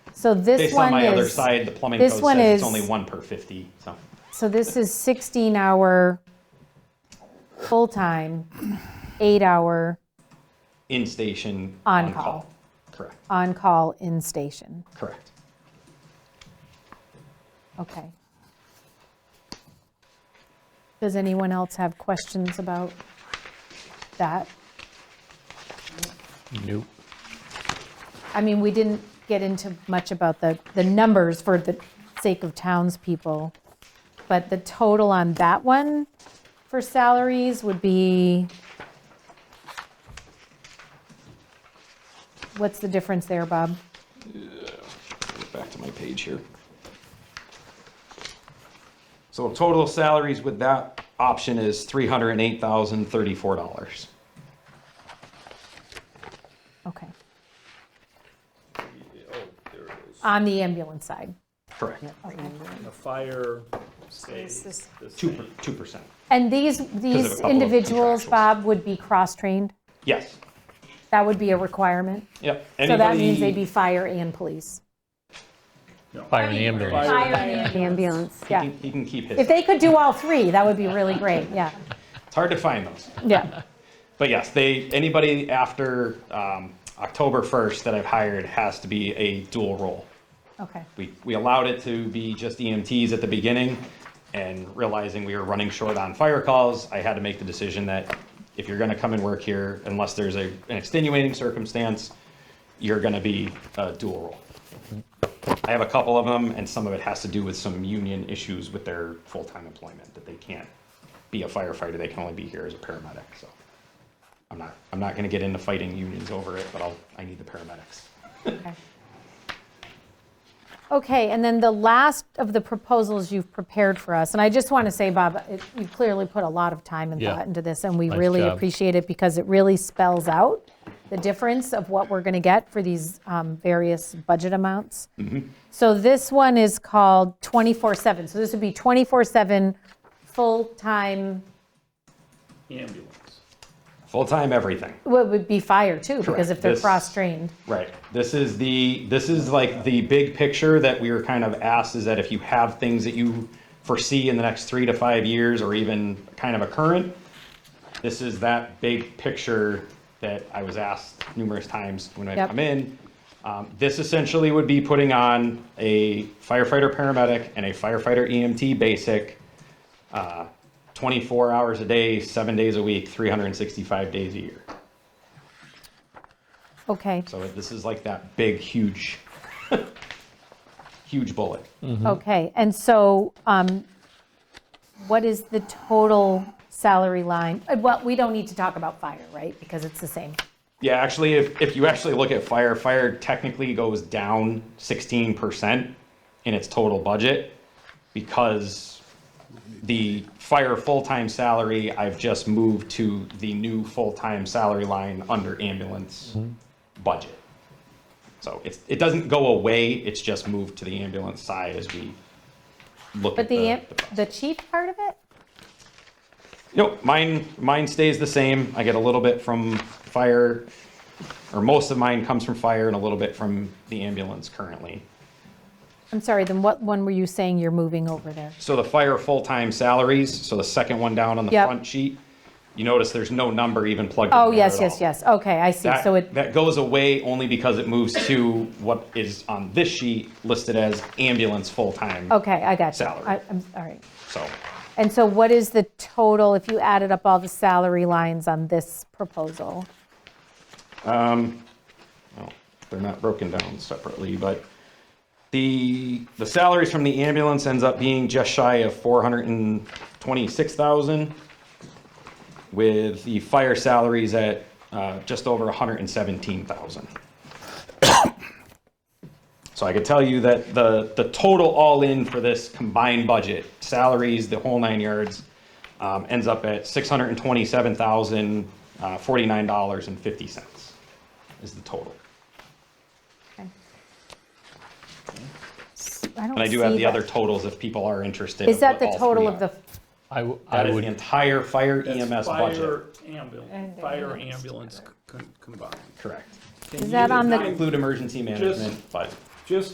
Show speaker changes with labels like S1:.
S1: So this
S2: Based
S1: one
S2: on my other
S1: is,
S2: side, the plumbing
S1: this
S2: code
S1: one
S2: says
S1: is-
S2: it's only one per fifty, so.
S1: so this is 16-hour, full-time, eight-hour
S2: In-station.
S1: On call.
S2: Correct,
S1: on-call in station.
S2: correct.
S1: Okay. Does anyone else have questions about that?
S3: Nope.
S1: I mean, we didn't get into much about the, the numbers for the sake of townspeople, but the total on that one for salaries would be, what's the difference there, Bob?
S2: Get Back to my page here. So total salaries with that option is three hundred and eight thousand thirty-four dollars.
S1: Okay. On the ambulance side.
S2: Correct,
S4: The fire, say,
S5: Is this-
S4: the
S2: two,
S4: same.
S2: per- two percent.
S1: And these,
S2: a
S1: these
S2: couple of
S1: individuals,
S2: contractuals.
S1: Bob, would be cross-trained?
S2: Yes,
S1: That would be a requirement?
S2: yep.
S1: So that means
S2: Anybody-
S1: they'd be fire and police?
S3: Fire and ambulance.
S4: Fire.
S5: Ambulance.
S1: Yeah.
S2: He he can keep his,
S1: If
S2: it's
S1: they could do all three, that would be really great, yeah,
S2: hard to find those.
S1: yeah.
S2: But yes, they, anybody after um, October 1st that I've hired has to be a dual role.
S1: Okay,
S2: We, we allowed it to be just EMTs at the beginning and realizing we were running short on fire calls, I had to make the decision that if you're gonna come and work here, unless there's a, an extenuating circumstance, you're gonna be a dual role. I have a couple of them and some of it has to do with some union issues with their full-time employment, that they can't be a firefighter, they can only be here as a paramedic, so. I'm not, I'm not gonna get into fighting unions over it, but I'll, I need the paramedics.
S1: okay. Okay, and then the last of the proposals you've prepared for us, and I just want to say, Bob, it- you clearly put a lot of time and
S3: Yeah.
S1: thought into this, and we
S3: Nice
S1: really
S3: job.
S1: appreciate it because it really spells out the difference of what we're going to get for these um, various budget amounts.
S2: Mm-hmm.
S1: So this one is called 24/7, so this would be 24/7 full-time
S4: ambulance.
S2: Full-time everything.
S1: Well, it would be fire too, because
S2: Correct.
S1: if they're
S2: This-
S1: cross-trained.
S2: Right. This is the, this is like the big picture that we were kind of asked is that if you have things that you foresee in the next three to five years or even kind of a current, this is that big picture that I was asked numerous times when I
S1: Yep.
S2: come in. Um, This essentially would be putting on a firefighter paramedic and a firefighter EMT basic, uh, 24 hours a day, seven days a week, 365 days a year.
S1: Okay,
S2: So this is like that big, huge, huge bullet.
S1: okay. And so um, what is the total salary line? Uh, Well, we don't need to talk about fire, right? Because it's the same.
S2: Yeah, actually, if, if you actually look at fire, fire technically goes down 16% in its total budget because the fire full-time salary, I've just moved to the new full-time salary line under ambulance budget. So it's, it doesn't go away, it's just moved to the ambulance side as we look at
S1: But
S2: the.
S1: the, am- the chief part of it?
S2: Nope, mine, mine stays the same. I get a little bit from fire, or most of mine comes from fire and a little bit from the ambulance currently.
S1: I'm sorry, then what one were you saying you're moving over there?
S2: So the fire full-time salaries, so the second one down on the
S1: Yep.
S2: front sheet, you notice there's no number even plugged in
S1: Oh,
S2: there
S1: yes,
S2: at
S1: yes,
S2: all.
S1: yes. Okay, I see. So
S2: That,
S1: it,
S2: that goes away only because it moves to what is on this sheet listed as ambulance full-time.
S1: okay, I got you.
S2: Salary.
S1: I- I'm, all right.
S2: So
S1: And so what is the total, if you added up all the salary lines on this proposal?
S2: Well, they're not broken down separately, but the, the salaries from the ambulance ends up being just shy of four hundred and twenty-six thousand, with the fire salaries at, uh, just over hundred and seventeen thousand. So I could tell you that the, the total all-in for this combined budget, salaries, the whole nine yards, um, ends up at six hundred and twenty-seven thousand, uh, forty-nine dollars and fifty cents is the total.
S1: Okay. S- I don't
S2: And I do have
S1: see
S2: the
S1: that.
S2: other totals if people are interested.
S1: Is
S2: of
S1: that
S2: what
S1: the
S2: all
S1: total
S2: three
S1: of the,
S2: are.
S3: I, w- I
S2: That is the
S3: would,
S2: entire fire
S4: That's
S2: EMS E budget.
S4: fire ambulance, fire ambulance con- combined.
S2: Correct.
S4: Can
S1: Is
S4: you-
S1: that on the-
S2: Include emergency management, but.
S4: Just